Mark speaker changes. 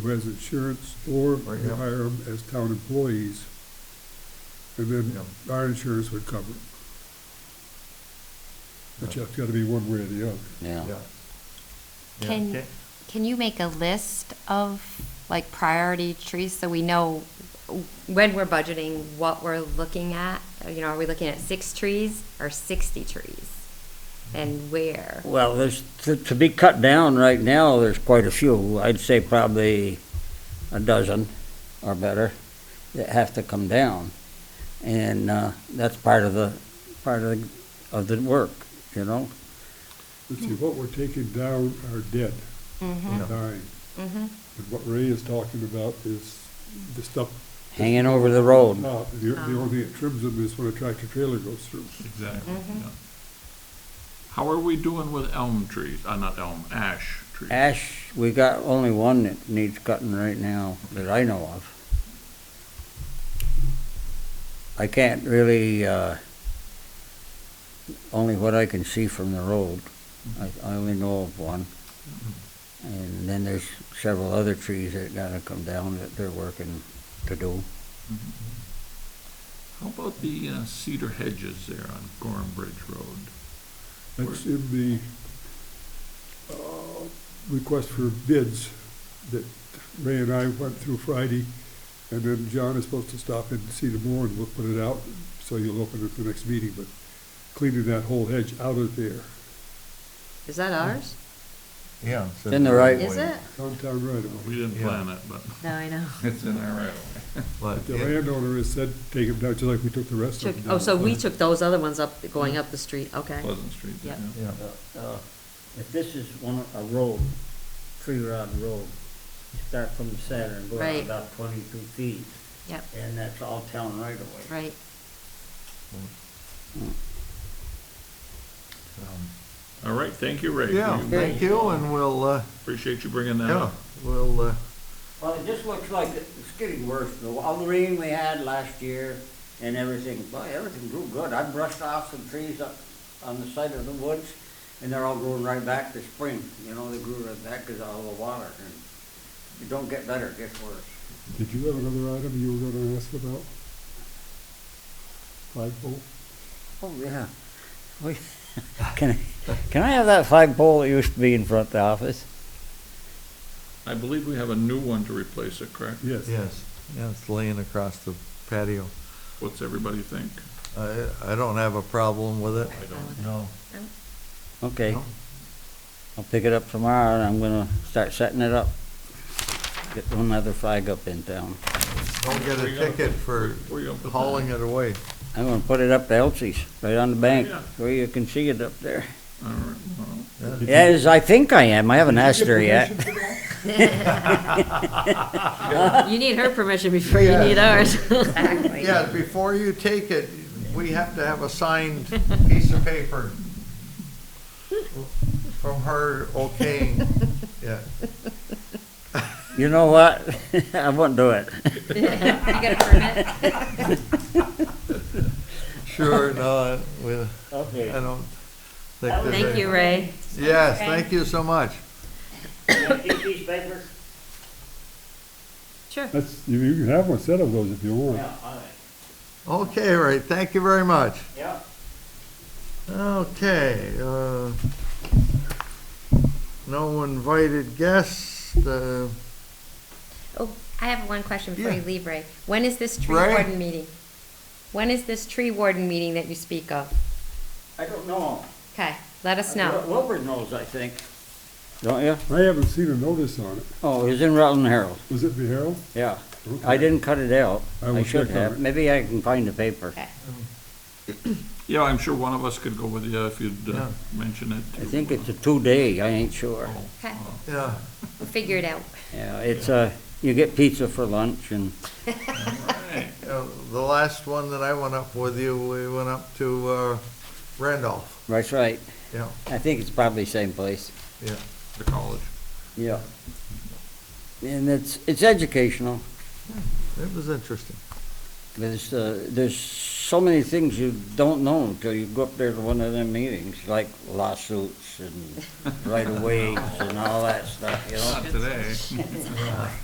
Speaker 1: who has insurance or
Speaker 2: Right,
Speaker 1: we
Speaker 2: yeah.
Speaker 1: hire them as town employees. And then our insurance would cover it. But
Speaker 2: Yeah.
Speaker 1: it's gotta be one way or the other.
Speaker 3: yeah.
Speaker 2: Yeah. Yeah.
Speaker 4: Can, can you make a list of like priority trees so we know when we're budgeting, what we're looking at? You know, are we looking at six trees or sixty trees? And where?
Speaker 3: Well, there's, to, to be cut down right now, there's quite a few. I'd say probably a dozen or better that have to come down. And, uh, that's part of the, part of, the of the work, you know?
Speaker 1: Let's see, what we're taking down are dead,
Speaker 4: Mm-hmm,
Speaker 2: Yeah.
Speaker 1: dying.
Speaker 4: mm-hmm,
Speaker 1: And what Ray is talking about is the stuff
Speaker 3: Hanging over the road.
Speaker 1: top. The, the
Speaker 4: Oh.
Speaker 1: only thing that trims them is when a tractor trailer goes through.
Speaker 5: Exactly,
Speaker 4: Mhm.
Speaker 5: yeah. How are we doing with elm trees, uh, not elm, ash trees?
Speaker 3: Ash, we got only one that needs cutting right now that I know of. I can't really, uh, only what I can see from the road. I, I only know of one.
Speaker 5: Mm-hmm.
Speaker 3: And then there's several other trees that gotta come down that they're working to do.
Speaker 5: How about the uh, cedar hedges there on Gorham Bridge Road?
Speaker 1: That's in the, uh, request for bids that Ray and I went through Friday. And then John is supposed to stop in and see tomorrow and we'll put it out, so you'll open it at the next meeting, but cleaning that whole hedge out of there,
Speaker 4: is that ours?
Speaker 2: Yeah. so-
Speaker 3: In the right-
Speaker 4: Is it?
Speaker 1: downtown right away.
Speaker 5: We didn't
Speaker 2: Yeah.
Speaker 5: plan it, but
Speaker 4: No, I know.
Speaker 5: it's in our right of
Speaker 2: But
Speaker 1: The
Speaker 2: it-
Speaker 1: landowner has said, take them down, just like we took the rest of
Speaker 4: Took,
Speaker 1: them down.
Speaker 4: oh, so we took those other ones up, going up the street, okay.
Speaker 5: Pleasant Street.
Speaker 4: Yep.
Speaker 5: yeah.
Speaker 2: Yeah,
Speaker 3: Uh, If this is one, a road, tree rod road, you start from the center and go out
Speaker 4: Right.
Speaker 3: about twenty-two feet,
Speaker 4: Yep,
Speaker 3: and that's all town right away.
Speaker 4: right.
Speaker 2: um,
Speaker 5: All right, thank you, Ray.
Speaker 2: Yeah,
Speaker 5: You-
Speaker 2: thank you, and we'll, uh,
Speaker 5: Appreciate you bringing that
Speaker 2: yeah,
Speaker 5: up.
Speaker 2: we'll, uh,
Speaker 3: Well, it just looks like it's getting worse, though. All the rain we had last year and everything, boy, everything grew good. I brushed off some trees up on the side of the woods, and they're all growing right back this spring. You know, they grew right back because of all the water, and it don't get better, it gets worse.
Speaker 1: Did you have another item you were gonna ask about? Flagpole?
Speaker 3: Oh, yeah. We- Can, I- can I have that flagpole that used to be in front of the office?
Speaker 5: I believe we have a new one to replace it, correct?
Speaker 1: Yes.
Speaker 2: yes, yeah, it's laying across the patio.
Speaker 5: What's everybody think?
Speaker 2: I, I don't have a problem with it.
Speaker 5: I don't.
Speaker 2: No.
Speaker 3: Okay,
Speaker 2: no.
Speaker 3: I'll pick it up tomorrow, and I'm gonna start setting it up. Get another flag up in town.
Speaker 2: Don't get
Speaker 5: Where
Speaker 2: a
Speaker 5: you gonna
Speaker 2: ticket
Speaker 5: put-
Speaker 2: for
Speaker 5: where you gonna put that?
Speaker 2: hauling it away.
Speaker 3: I'm gonna put it up to Elsie's, right on the bank,
Speaker 5: Yeah.
Speaker 3: where you can see it up there.
Speaker 5: All right, well,
Speaker 3: Yes, I think I am. I haven't asked her yet.
Speaker 4: You need her permission before you need ours.
Speaker 2: Yeah, before you take it, we have to have a signed piece of paper from her okaying, yeah.
Speaker 3: You know what? I won't do it.
Speaker 4: You got a permit?
Speaker 2: Sure, no, we, I
Speaker 3: Okay.
Speaker 2: don't think there's any.
Speaker 4: Thank you, Ray.
Speaker 2: Yes, thank you so much.
Speaker 4: Sure.
Speaker 1: That's, you, you can have one set of those if you want.
Speaker 2: Okay, Ray, thank you very much.
Speaker 3: Yeah.
Speaker 2: Okay, uh, no invited guests, uh,
Speaker 4: Oh, I have one question before
Speaker 2: Yeah.
Speaker 4: you leave, Ray. When is this tree
Speaker 2: Ray?
Speaker 4: warden meeting? When is this tree warden meeting that you speak of?
Speaker 3: I don't know.
Speaker 4: Okay, let us know.
Speaker 3: Wilbur knows, I think. Don't you?
Speaker 1: I haven't seen a notice on it.
Speaker 3: Oh, it's in Rutland Herald.
Speaker 1: Was it the Herald?
Speaker 3: Yeah. I didn't cut it out.
Speaker 1: I will
Speaker 3: I should
Speaker 1: check on
Speaker 3: have.
Speaker 1: it.
Speaker 3: Maybe I can find the paper.
Speaker 4: Okay.
Speaker 5: yeah, I'm sure one of us could go with you if you'd uh,
Speaker 2: Yeah.
Speaker 5: mention it.
Speaker 3: I think it's a two-day. I ain't sure.
Speaker 4: Okay,
Speaker 2: yeah,
Speaker 4: we'll figure it out.
Speaker 3: Yeah, it's uh you get pizza for lunch and,
Speaker 5: Hey,
Speaker 2: uh, the last one that I went up with you, we went up to, uh, Randolph,
Speaker 3: that's right.
Speaker 2: yeah,
Speaker 3: I think it's probably same place.
Speaker 2: yeah.
Speaker 5: the college.
Speaker 3: Yeah. And it's, it's educational.
Speaker 2: It was interesting.
Speaker 3: There's, uh, there's so many things you don't know until you go up there to one of them meetings, like lawsuits and right of ways and all that stuff, you know?
Speaker 5: Not today.